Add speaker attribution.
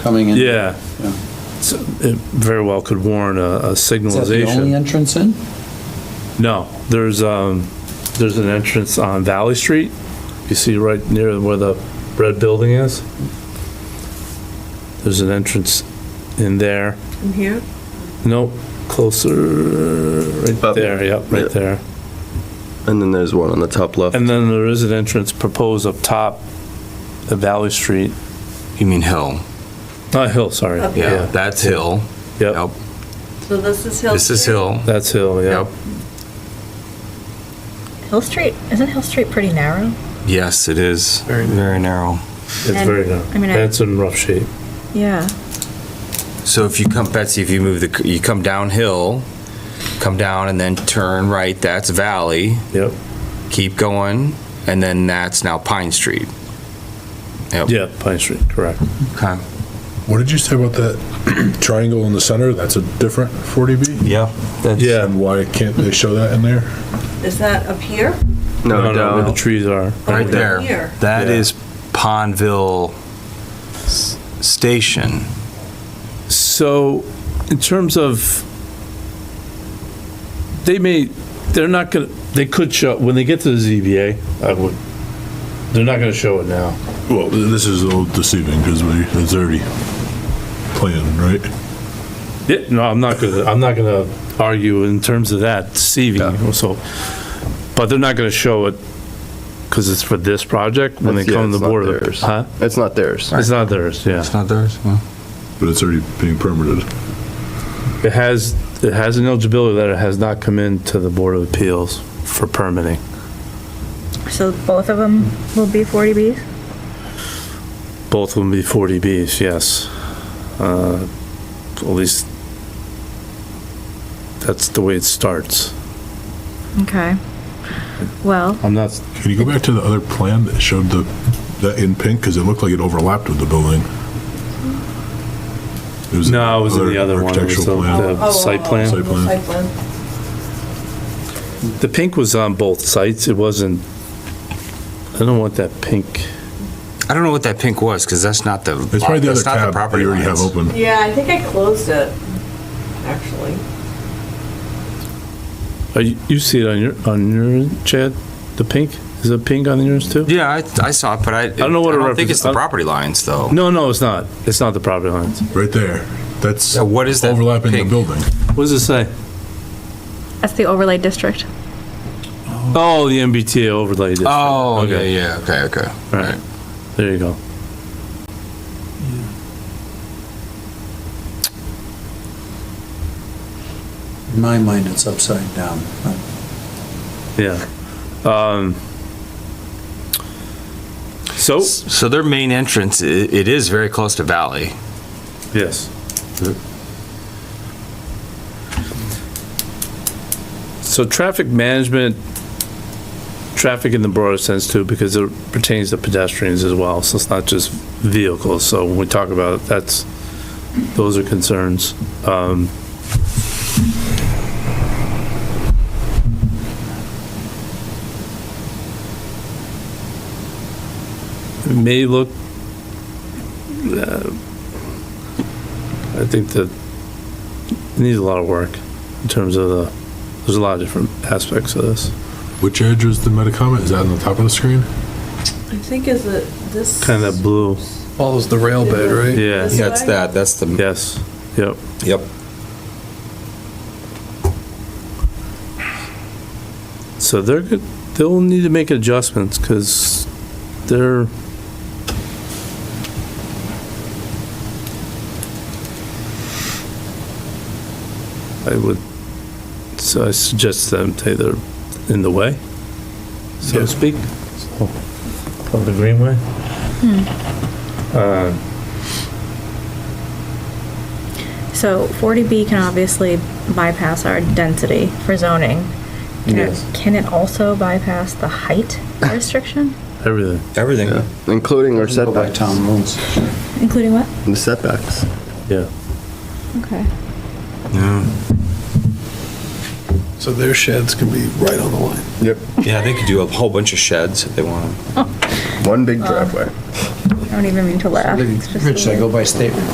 Speaker 1: coming in.
Speaker 2: Yeah.
Speaker 1: Yeah.
Speaker 2: So It very well could warrant a a
Speaker 1: Is that the only
Speaker 2: signalization.
Speaker 1: entrance in?
Speaker 2: No, there's, um, there's an entrance on Valley Street. You see right near where the red building is? There's an entrance in there.
Speaker 3: From here?
Speaker 2: Nope, closer, right
Speaker 4: Up.
Speaker 2: there, yep,
Speaker 4: Yeah.
Speaker 2: right there.
Speaker 4: And then there's one on the top left.
Speaker 2: And then there is an entrance proposed up top of Valley Street,
Speaker 5: You mean Hill?
Speaker 2: not Hill, sorry.
Speaker 3: Up
Speaker 5: Yeah, that's Hill.
Speaker 2: Yep,
Speaker 5: Yep.
Speaker 3: So this is Hill.
Speaker 5: This is
Speaker 3: Street?
Speaker 5: Hill.
Speaker 2: that's Hill,
Speaker 5: Yep.
Speaker 2: yep.
Speaker 6: Hill Street, isn't Hill Street pretty narrow?
Speaker 5: Yes, it is. Very, narrow.
Speaker 2: It's very narrow.
Speaker 6: I mean, I-
Speaker 2: That's in rough shape.
Speaker 6: Yeah.
Speaker 5: So if you come, Betsy, if you move the, you come downhill, come down and then turn right, that's Valley,
Speaker 2: Yep,
Speaker 5: keep going, and then that's now Pine Street. Yep.
Speaker 2: yeah, Pine Street, correct.
Speaker 5: Okay.
Speaker 7: What did you say about that triangle in the center? That's a different 40B?
Speaker 5: Yeah. That's,
Speaker 2: Yeah.
Speaker 7: And why can't they show that in there?
Speaker 3: Is that up here?
Speaker 2: No, no, where the
Speaker 4: down.
Speaker 2: trees are.
Speaker 5: Right there.
Speaker 3: Here.
Speaker 5: That
Speaker 2: Yeah.
Speaker 5: is Pondville S- Station.
Speaker 2: So, in terms of, they may, they're not gonna, they could show, when they get to the ZBA, I would, they're not gonna show it now.
Speaker 7: Well, this is a little deceiving because it's already planned, right?
Speaker 2: Yeah, no, I'm not gonna, I'm not gonna argue in terms of that deceiving, so, but they're not gonna show it because it's for this project when they
Speaker 4: That's- yeah,
Speaker 2: come to
Speaker 4: it's
Speaker 2: the
Speaker 4: not
Speaker 2: board. of-
Speaker 4: theirs.
Speaker 2: Huh?
Speaker 4: It's not theirs.
Speaker 2: It's not theirs, yeah.
Speaker 5: not theirs?
Speaker 7: But it's already being permitted.
Speaker 2: It has, it has an eligibility that it has not come into the Board of Appeals for permitting.
Speaker 6: So both of them will be 40Bs?
Speaker 2: Both will be 40Bs, yes. Uh, At least, that's the way it starts.
Speaker 6: Okay. Well,
Speaker 2: I'm not,
Speaker 7: Can you go back to the other plan that showed the, that in pink? Because it looked like it overlapped with the building. It was
Speaker 2: no, it was in the other one, it was the
Speaker 7: Architectural plan.
Speaker 3: Oh, oh,
Speaker 2: the site
Speaker 3: oh,
Speaker 2: plan.
Speaker 7: Site plan.
Speaker 3: Site plan.
Speaker 2: The pink was on both sites, it wasn't, I don't want that pink.
Speaker 5: I don't know what that pink was, because that's not the.
Speaker 7: It's probably the other
Speaker 5: that's not
Speaker 7: tab that
Speaker 5: property
Speaker 7: you already have
Speaker 5: lines.
Speaker 7: open.
Speaker 3: Yeah, I think I closed it, actually.
Speaker 2: Are you you see it on your, on your, Chad? The pink? Is it pink on yours too?
Speaker 5: Yeah, I, I saw it, but I, I
Speaker 2: don't know what it
Speaker 5: I don't think
Speaker 2: represents-
Speaker 5: it's the property lines, though.
Speaker 2: No, no, it's not. It's not the property lines.
Speaker 7: Right there. That's
Speaker 5: So what is that
Speaker 7: overlapping the
Speaker 5: pink?
Speaker 7: building.
Speaker 2: What does it say?
Speaker 6: that's the overlay district.
Speaker 2: Oh, the MBTA overlay district.
Speaker 5: Oh, yeah,
Speaker 2: Okay.
Speaker 5: yeah, okay, okay.
Speaker 2: Right. There you go.
Speaker 1: In my mind, it's upside down.
Speaker 2: Yeah. Um, So,
Speaker 5: So their main entrance, i- it is very close to Valley.
Speaker 2: yes. So traffic management, traffic in the broader sense too, because it pertains to pedestrians as well, so it's not just vehicles. So when we talk about it, that's, those are concerns. Um, It may look, uh, I think that it needs a lot of work in terms of the, there's a lot of different aspects of this.
Speaker 7: Which edge is the Metacomet? Is that on the top of the screen?
Speaker 3: I think is it this?
Speaker 2: Kind of that blue,
Speaker 8: Follows the rail bed, right?
Speaker 2: yeah,
Speaker 3: This way?
Speaker 5: that's the,
Speaker 2: yes, yep.
Speaker 5: yep.
Speaker 2: So they're, good- they'll need to make adjustments because they're, I would, so I suggest them say they're in the way, so to speak. Of the greenway?
Speaker 6: So 40B can obviously bypass our density for zoning. Can it-
Speaker 2: Yes.
Speaker 6: Can it also bypass the height restriction,
Speaker 2: Everything.
Speaker 5: Everything.
Speaker 4: Yeah. Including our
Speaker 1: Go by
Speaker 4: setbacks.
Speaker 1: town rules.
Speaker 6: including what?
Speaker 4: The setbacks.
Speaker 6: Okay.
Speaker 8: So their sheds can be right on the line.
Speaker 4: Yep.
Speaker 5: Yeah, they could do a whole bunch of sheds if they want.
Speaker 4: One big driveway.
Speaker 1: Uh,
Speaker 6: I don't even mean to laugh. It's just a
Speaker 8: Rich, I
Speaker 6: little-
Speaker 8: go by statement.